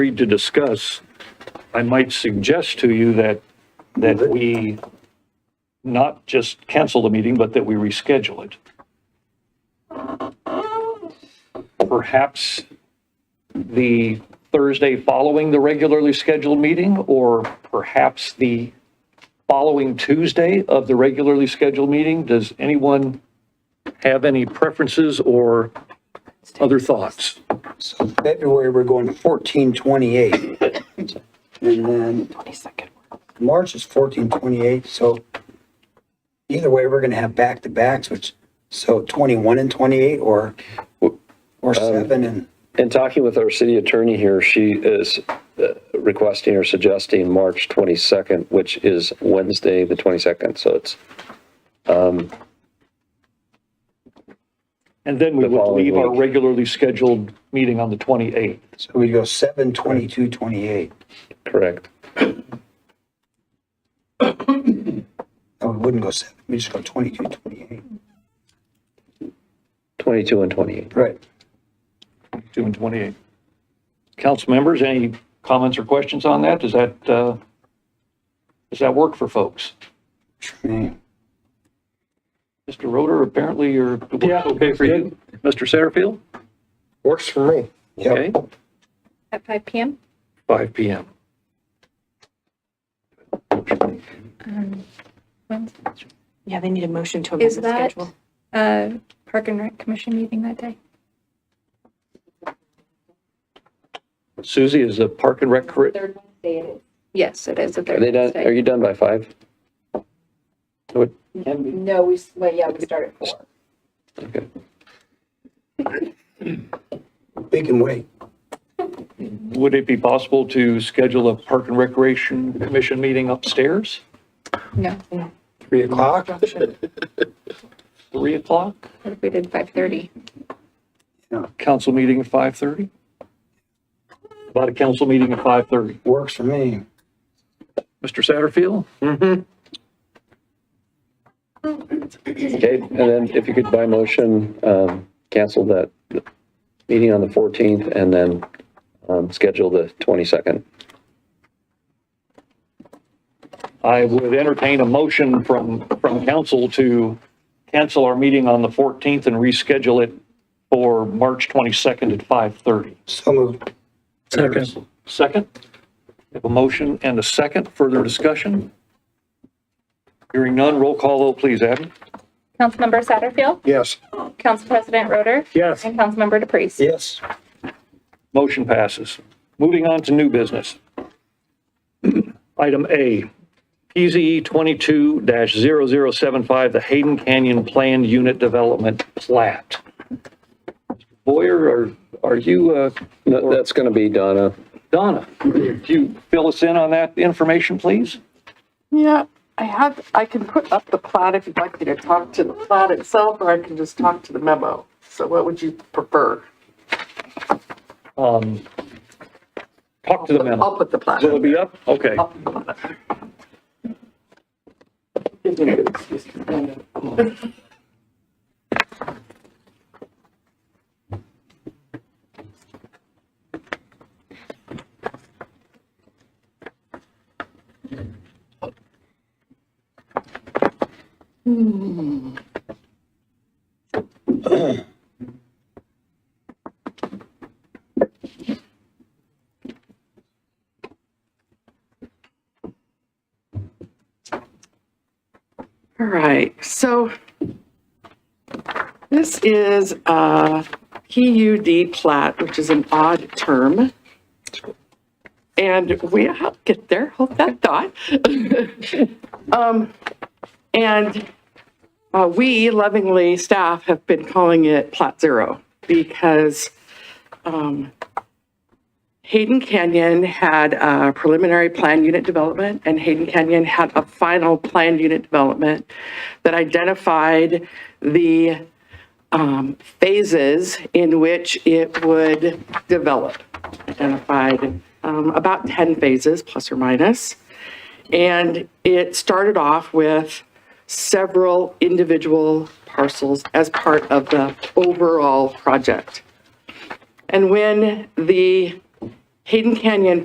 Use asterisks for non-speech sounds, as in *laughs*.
agreed to discuss, I might suggest to you that, that we not just cancel the meeting, but that we reschedule it. Perhaps the Thursday following the regularly scheduled meeting, or perhaps the following Tuesday of the regularly scheduled meeting? Does anyone have any preferences or other thoughts? So February, we're going fourteen twenty-eight. And then Twenty-second. March is fourteen twenty-eight, so either way, we're gonna have back-to-backs, which, so twenty-one and twenty-eight or, or seven and, In talking with our city attorney here, she is uh, requesting or suggesting March 22nd, which is Wednesday, the 22nd, so it's, And then we The would following leave our week. regularly scheduled meeting on the 28th. so we go seven, twenty-two, twenty-eight. correct. No, we wouldn't go seven, we just go twenty-two, twenty-eight. 22 and 28. Right. 2 and 28. Council members, any comments or questions on that? Does that, uh, does that work for folks? Mr. Roder, apparently you're, it works okay for you? Mr. Satterfield? Works for me. Yep, Okay, At five PM? 5 PM. Yeah, they need a motion to amend Is the that, schedule. uh, Park and Rec Commission meeting that day? Suzie, is the Park and Rec, correct? Yes, it is. Are they done, are you done by 5? No, we, s- well, yeah, we start at four. Okay. we can wait. would it be possible to schedule a Park and Recreation Commission meeting upstairs? No, Three o'clock? 3 o'clock? what if we did five thirty? Council meeting at 5:30? About a council meeting at 5:30. Works for me. Mr. Satterfield? Okay, and then if you could by motion, um, cancel that meeting on the 14th and then um, schedule the 22nd. I would entertain a motion from, from council to cancel our meeting on the 14th and reschedule it for March 22nd at 5:30. So moved. Second. Second? We Have a motion and a second. Further discussion? Hearing none, roll call vote, please, Abby. Councilmember Satterfield, Yes. Council President Roder, Yes. and Councilmember DePreez. Yes. Motion passes. Moving on to new business. *clears throat* Item A, E PZE 22-0075, the Hayden Canyon Planned Unit Development Plat. Boyer, are, are you, uh, No, That's going to be Donna. Donna, could you fill us in on that information, please? Yeah, I have, I can put up the plot if you'd like me to talk to the plot itself, or I can just talk to the memo. So what would you prefer? Um, Talk to the I'll memo. put the plot. Will it be up? Okay. Give me a good excuse to bring it. All right, so this is uh, a PUD plat, which is an odd term. And we, I'll get there, hold that thought. *laughs* Um, And uh, we lovingly, staff have been calling it Plat Zero because um, Hayden Canyon had a preliminary plan unit development, and Hayden Canyon had a final plan unit development that identified the um, phases in which it would develop. Identified um, about 10 phases, plus or minus. And it started off with several individual parcels as part of the overall project. And when the Hayden Canyon